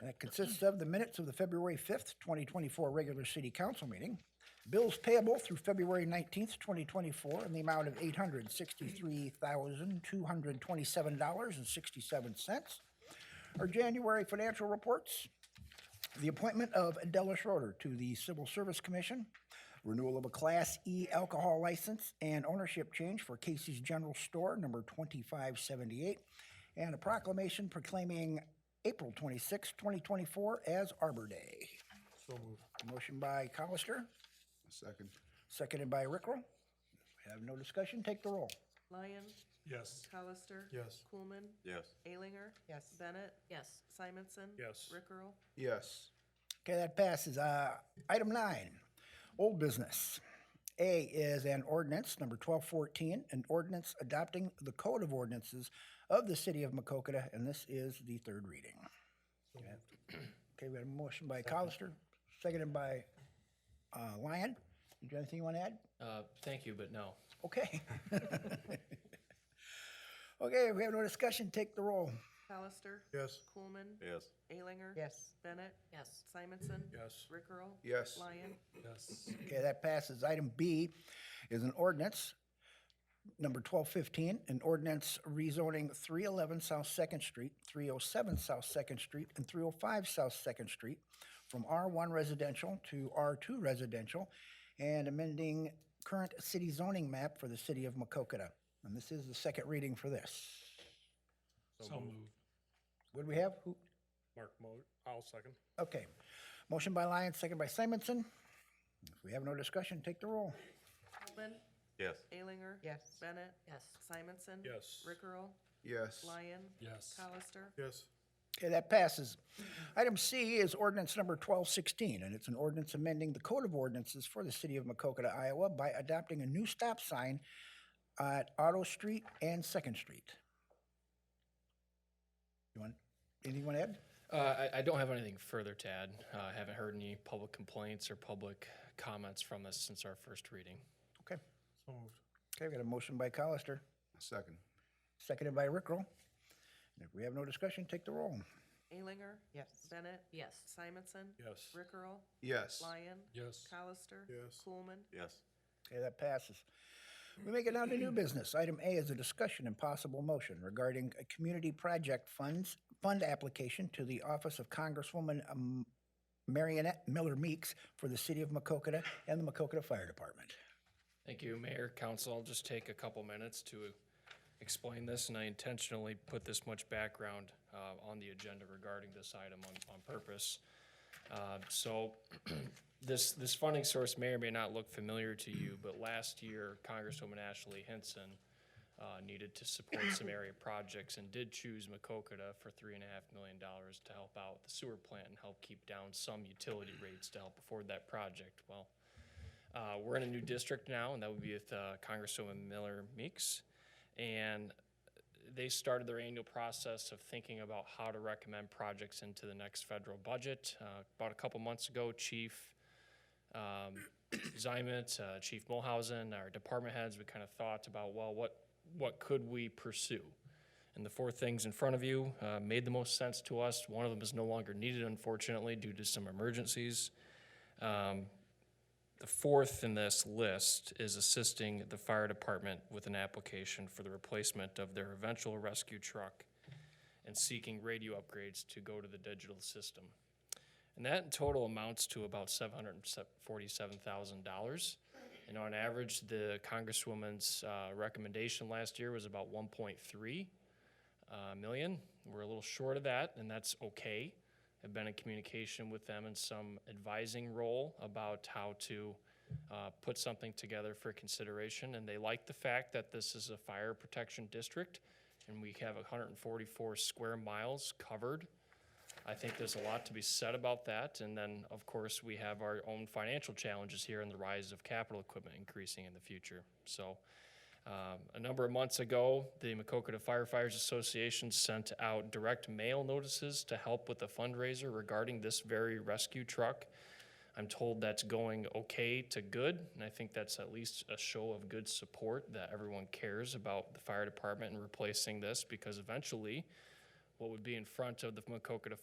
And it consists of the minutes of the February 5th, 2024 regular city council meeting, bills payable through February 19th, 2024 in the amount of $863,227.67, our January financial reports, the appointment of Adela Schroeder to the Civil Service Commission, renewal of a Class E alcohol license and ownership change for Casey's General Store, number 2578, and a proclamation proclaiming April 26, 2024 as Arbor Day. So moved. Motion by Colister, Second. seconded by Rickrell. Have no discussion, take the roll. Lyon, Yes. Colister. Yes. Coolman, Yes. Alinger. Yes. Bennett, Yes. Simonson. Yes. Rickrell. Yes. Okay, that passes. Uh, Item nine, old business. A is an ordinance, number 1214, an ordinance adopting the Code of Ordinances of the City of Macokota, and this is the third reading. Okay, we got a motion by Colister, seconded by uh, Lyon. You got anything you want to add? Uh, Thank you, but no. Okay. Okay, we have no discussion, take the roll. Colister. Yes. Coolman. Yes. Alinger. Yes. Bennett, Yes. Simonson. Yes. Rickrell. Yes. Lyon. Yes. Okay, that passes. Item B is an ordinance, number 1215, an ordinance rezoning 311 South Second Street, 307 South Second Street, and 305 South Second Street from R1 Residential to R2 Residential, and amending current city zoning map for the city of Macokota. And this is the second reading for this. So moved. What do we have? Who? Mark Mo, I'll second. Okay. Motion by Lyons, second by Simonson. If we have no discussion, take the roll. Coolman. Yes. Alinger. Yes. Bennett. Yes. Simonson. Yes. Rickrell. Yes. Lyon. Yes. Colister. Yes. Okay, that passes. Item C is ordinance number 1216, and it's an ordinance amending the Code of Ordinances for the City of Macokota, Iowa by adopting a new stop sign at Otto Street and Second Street. You want, anything you want to add? Uh, I, I don't have anything further to add. Uh, I haven't heard any public complaints or public comments from this since our first reading. Okay, So moved. okay, we got a motion by Colister, Second. seconded by Rickrell. And If we have no discussion, take the roll. Alinger. Yes. Bennett. Yes. Simonson. Yes. Rickrell. Yes. Lyon. Yes. Colister. Yes. Coolman. Yes. Okay, that passes. We make it down to new business. Item A is a discussion and possible motion regarding a community project funds, fund application to the Office of Congresswoman um, Marionette Miller Meeks for the City of Macokota and the Macokota Fire Department. Thank you, Mayor, Council. I'll just take a couple minutes to explain this, and I intentionally put this much background uh, on the agenda regarding this item on, on purpose. Uh, So this, this funding source may or may not look familiar to you, but last year Congresswoman Ashley Hinson uh, needed to support some area projects and did choose Macokota for three and a half million dollars to help out the sewer plant and help keep down some utility rates to help afford that project. Well, uh, we're in a new district now, and that would be with uh, Congresswoman Miller Meeks. And they started their annual process of thinking about how to recommend projects into the next federal budget. Uh, about a couple months ago, Chief um, Zimet, uh, Chief Mulhausen, our department heads, we kind of thought about, well, what, what could we pursue? And the four things in front of you uh, made the most sense to us. One of them is no longer needed, unfortunately, due to some emergencies. Um, the fourth in this list is assisting the fire department with an application for the replacement of their eventual rescue truck and seeking radio upgrades to go to the digital system. And that in total amounts to about seven hundred and forty-seven thousand dollars. And on average, the Congresswoman's uh, recommendation last year was about one point three uh, million. We're a little short of that, and that's okay. I've been in communication with them in some advising role about how to uh, put something together for consideration, and they like the fact that this is a fire protection district, and we have 144 square miles covered. I think there's a lot to be said about that, and then, of course, we have our own financial challenges here and the rise of capital equipment increasing in the future. So, um, A number of months ago, the Macokota Firefighters Association sent out direct mail notices to help with the fundraiser regarding this very rescue truck. I'm told that's going okay to good, and I think that's at least a show of good support that everyone cares about the fire department and replacing this because eventually, what would be in front of the Macokota